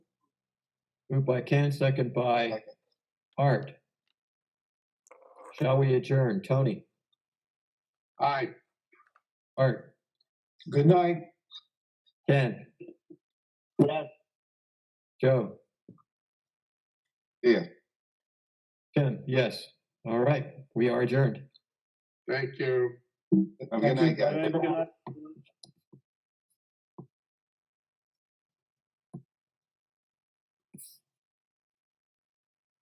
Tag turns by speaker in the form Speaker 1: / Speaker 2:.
Speaker 1: Moved by Ken, second by
Speaker 2: Second.
Speaker 1: Art. Shall we adjourn? Tony,
Speaker 2: All right.
Speaker 1: Art,
Speaker 2: Good night.
Speaker 1: Ken,
Speaker 2: Yes.
Speaker 1: Joe?
Speaker 2: Yeah.
Speaker 1: Ken, yes. All right, we are adjourned.
Speaker 2: Thank you.
Speaker 3: Have a good night, guys.
Speaker 2: everyone.